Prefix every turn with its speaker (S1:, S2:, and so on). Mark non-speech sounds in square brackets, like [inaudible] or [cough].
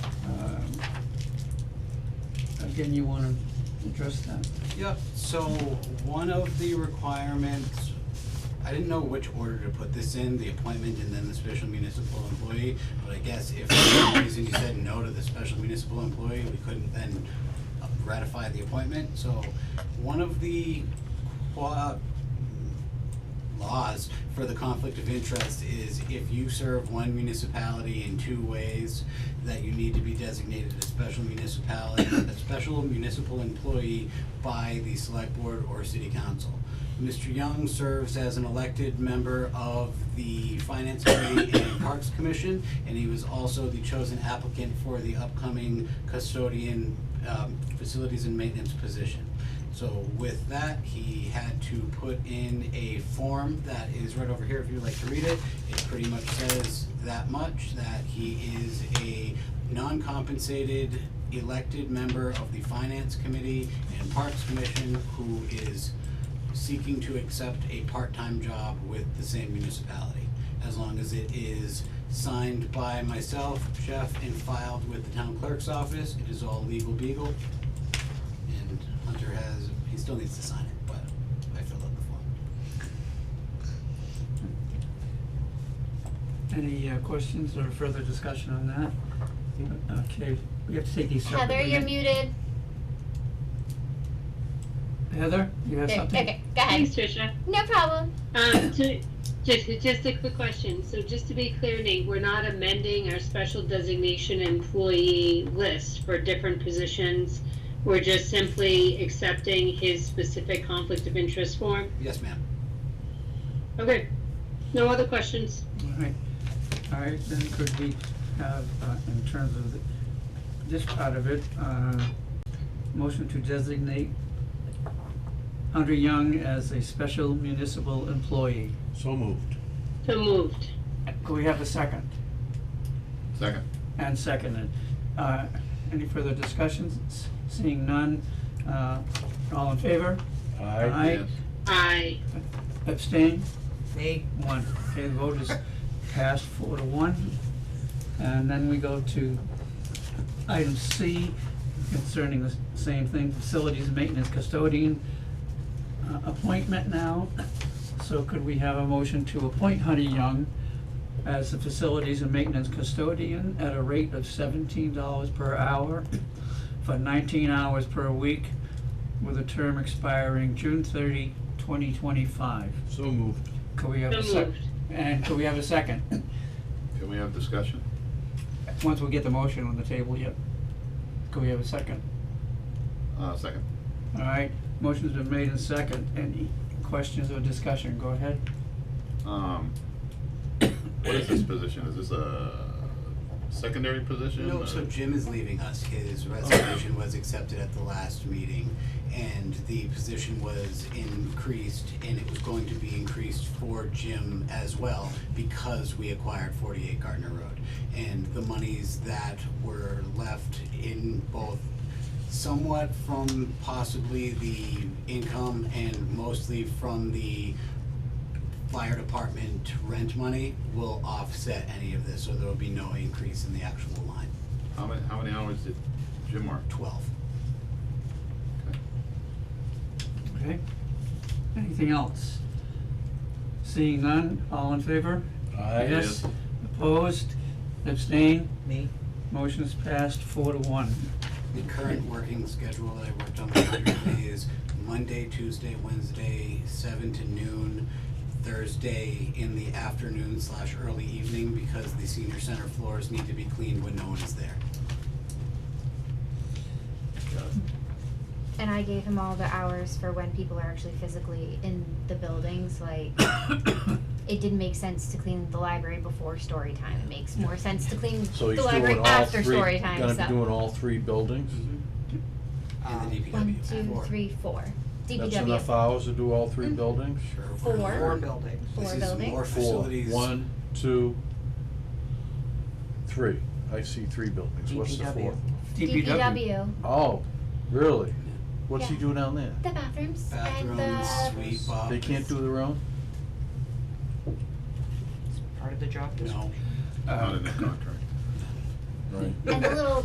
S1: Um, again, you wanna address that?
S2: Yep, so one of the requirements, I didn't know which order to put this in, the appointment and then the special municipal employee, but I guess if for some reason you said no to the special municipal employee, we couldn't then ratify the appointment, so one of the qua- laws for the conflict of interest is if you serve one municipality in two ways, that you need to be designated a special municipality, a special municipal employee by the select board or city council. Mr. Young serves as an elected member of the Finance Committee and Parks Commission, and he was also the chosen applicant for the upcoming custodian, um, facilities and maintenance position. So with that, he had to put in a form that is right over here if you'd like to read it. It pretty much says that much, that he is a non-compensated elected member of the Finance Committee and Parks Commission who is seeking to accept a part-time job with the same municipality, as long as it is signed by myself, Jeff, and filed with the town clerk's office. It is all legal beagle. And Hunter has, he still needs to sign it, but I filled out the form.
S1: Any uh, questions or further discussion on that? Okay, we have to take these separately.
S3: Heather, you're muted.
S1: Heather, you have
S3: There-
S1: something?
S3: Okay, go ahead.
S4: Thanks, Tricia.
S3: No problem.
S4: Um, to, just, just a quick question. So just to be clear, Nate, we're not amending our special designation employee list for different positions. We're just simply accepting his specific conflict of interest form.
S2: Yes, ma'am.
S4: Okay. No other questions?
S1: All right, all right, then could we have, uh, in terms of the- this part of it, uh, motion to designate Hunter Young as a special municipal employee?
S5: So moved.
S4: So moved.
S1: Could we have a second?
S6: Second.
S1: And seconded. Uh, any further discussions? S- Seeing none, uh, all in favor?
S5: Aye.
S1: Aye.
S6: Yes.
S4: Aye.
S1: Abstain? Nay. One. Okay, the vote is passed four to one. And then we go to item C concerning the s- same thing, facilities maintenance custodian uh, appointment now. So could we have a motion to appoint Honey Young as the facilities and maintenance custodian at a rate of seventeen dollars per hour for nineteen hours per week with a term expiring June 30, 2025.
S5: So moved.
S1: Could we have
S4: So
S1: a sec-
S4: moved.
S1: and could we have a second?
S6: Can we have discussion?
S1: Once we get the motion on the table, yep. Could we have a second?
S6: Uh, second.
S1: All right, motion's been made and second. Any questions or discussion? Go ahead.
S6: Um, what is this position? Is this a secondary position? Uh,
S2: No,
S6: or-
S2: so Jim is leaving us. His resignation was accepted at the last meeting and the position was increased and it was going to be increased for Jim as well because we acquired forty-eight Gardner Road. And the monies that were left in both somewhat from possibly the income and mostly from the fire department rent money will offset any of this, so there will be no increase in the actual line.
S6: How many, how many hours did Jim work?
S2: Twelve.
S1: Okay? Anything else? Seeing none, all in favor?
S5: Aye.
S1: Yes. Opposed? Abstain? Me. Motion is passed four to one.
S2: The current working schedule that I worked on [coughs] with Andrea is Monday, Tuesday, Wednesday, seven to noon, Thursday in the afternoon slash early evening, because the senior center floors need to be cleaned when no one is there.
S6: Got it.
S3: And I gave him all the hours for when people are actually physically in the buildings,
S5: [coughs]
S3: like. It didn't make sense to clean the library before story time. It makes more sense to clean
S5: So
S3: the
S5: he's
S3: library
S5: doing all
S3: after
S5: three,
S3: story time,
S5: gonna
S3: so.
S5: be doing all three buildings?
S2: In the DPW.
S3: Um, One, two,
S2: Four.
S3: three, four.
S5: That's
S3: DPW,
S5: enough hours to do all three
S3: Mm.
S5: buildings?
S2: Sure.
S3: Four. Four
S7: buildings.
S3: Four
S2: This is
S3: buildings?
S2: more
S5: Four.
S2: facilities.
S5: One, two, three. I see three buildings. What's the
S7: DPW.
S5: fourth? uh,
S3: DPW,
S5: Oh, really? What's he
S3: Yeah.
S5: doing down there?
S3: the bathrooms
S2: Bathrooms,
S3: and the,
S2: sweep up.
S5: They can't do their own?
S7: Part of the job description.
S2: No.
S6: Not in the contract.
S5: Right.
S3: and the little